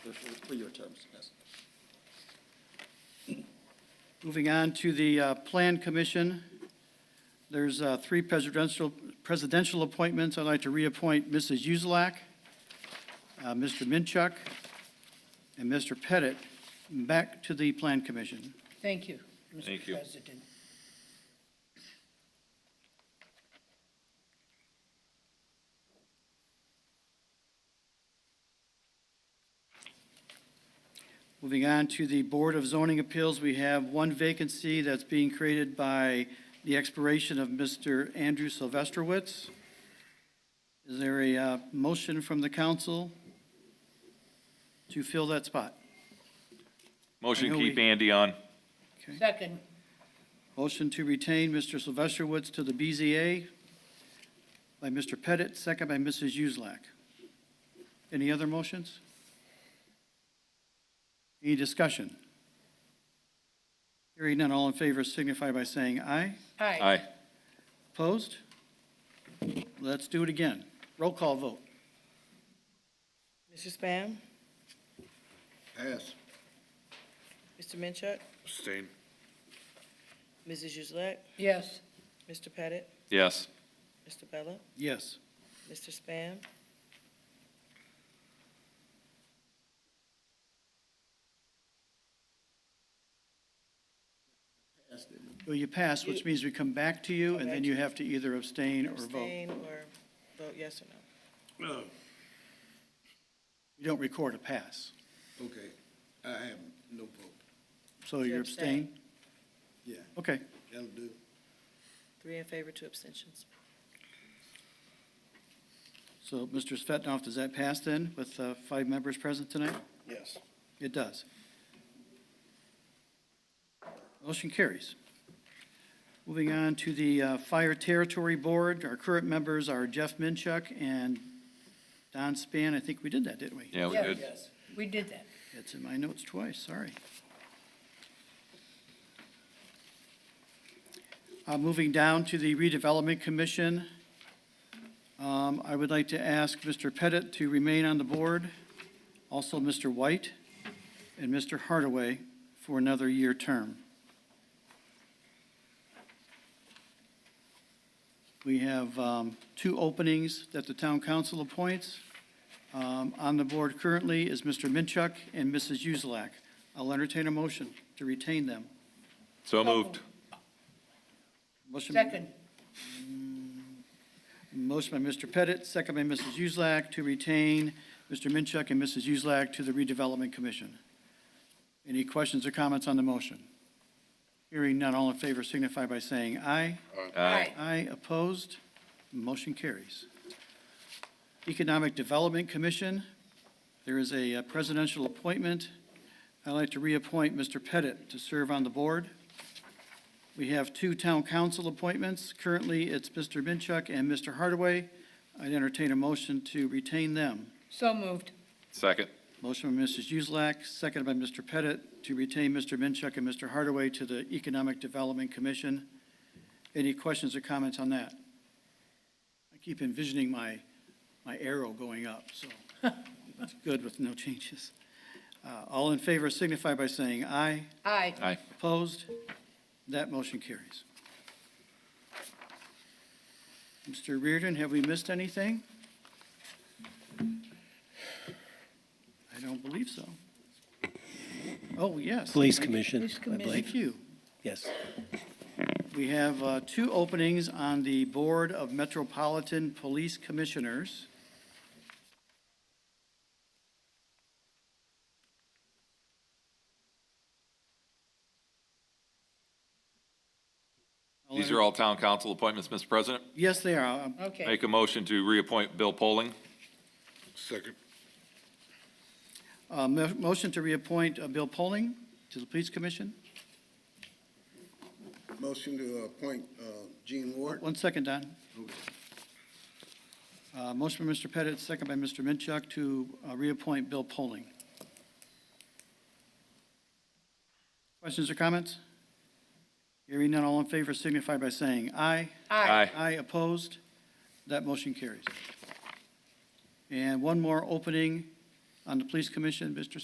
for three-year terms, yes. Moving on to the uh, Plan Commission, there's uh, three presidential, presidential appointments. I'd like to reappoint Mrs. Uzelak, uh, Mr. Minchuk, and Mr. Pettit back to the Plan Commission. Thank you, Thank Mr. you. President. Moving on to the Board of Zoning Appeals, we have one vacancy that's being created by the expiration of Mr. Andrew Sylvesterwitz. Is there a uh, motion from the council to fill that spot? I Motion, know keep we- Andy on. Second, Motion to retain Mr. Sylvesterwitz to the BZA by Mr. Pettit, second by Mrs. Uselak. Any other motions? Any discussion? Hearing none, all in favor signify by saying aye. aye. Aye. Opposed? Let's do it again. Roll call vote. Mr. Spam, Pass. Mr. Minchuk, Abstain. Mrs. Uselak, Yes, Mr. Pettit, Yes. Mr. Bella, Yes. Mr. Spam, Well, you pass, which means we come back to you, and then you have to either abstain or vote. abstain, or vote yes or no. You don't record a pass. Okay, I have no vote, So you're abstaining? yeah, Okay. that'll do. Three in favor, two abstentions. So, Mr. Svetnov, does that pass then with uh, five members present tonight? Yes. It does. Motion carries. Moving on to the uh, Fire Territory Board, our current members are Jeff Minchuk and Don Span. I think we did that, didn't we? Yeah, we Yeah. did. we did that. It's in my notes twice, sorry. Uh, Moving down to the redevelopment commission, um, I would like to ask Mr. Pettit to remain on the board, also Mr. White and Mr. Hardaway for another year term. We have um, two openings that the town council appoints. Um, On the board currently is Mr. Minchuk and Mrs. Uzelak. I'll entertain a motion to retain them. So moved. Motion- Second, Motion by Mr. Pettit, second by Mrs. Uselak, to retain Mr. Minchuk and Mrs. Uselak to the redevelopment commission. Any questions or comments on the motion? Hearing none, all in favor signify by saying aye. aye. Aye, opposed, motion carries. Economic Development Commission, there is a uh, presidential appointment. I'd like to reappoint Mr. Pettit to serve on the board. We have two town council appointments. Currently, it's Mr. Minchuk and Mr. Hardaway. I'd entertain a motion to retain them. So moved, Second. Motion by Mrs. Uselak, seconded by Mr. Pettit, to retain Mr. Minchuk and Mr. Hardaway to the Economic Development Commission. Any questions or comments on that? I keep envisioning my, my arrow going up, so that's good with no changes. Uh, All in favor signify by saying aye. aye. Aye. Opposed? That motion carries. Mr. Reardon, have we missed anything? I don't believe so. Oh, yes. Police Commission, Police I believe, Thank you. yes. We have uh, two openings on the Board of Metropolitan Police Commissioners. These are all town council appointments, Mr. President. Yes, they are. Um, Okay, Make a motion to reappoint Bill Poling. Second. Uh, mo- Motion to reappoint uh, Bill Poling to the Police Commission. Motion to appoint uh, Gene Ward. One second, Don. Okay. Uh, Motion by Mr. Pettit, second by Mr. Minchuk to uh, reappoint Bill Poling. Questions or comments? Hearing none, all in favor signify by saying aye. aye. Aye opposed. That motion carries. And one more opening on the Police Commission, Mr.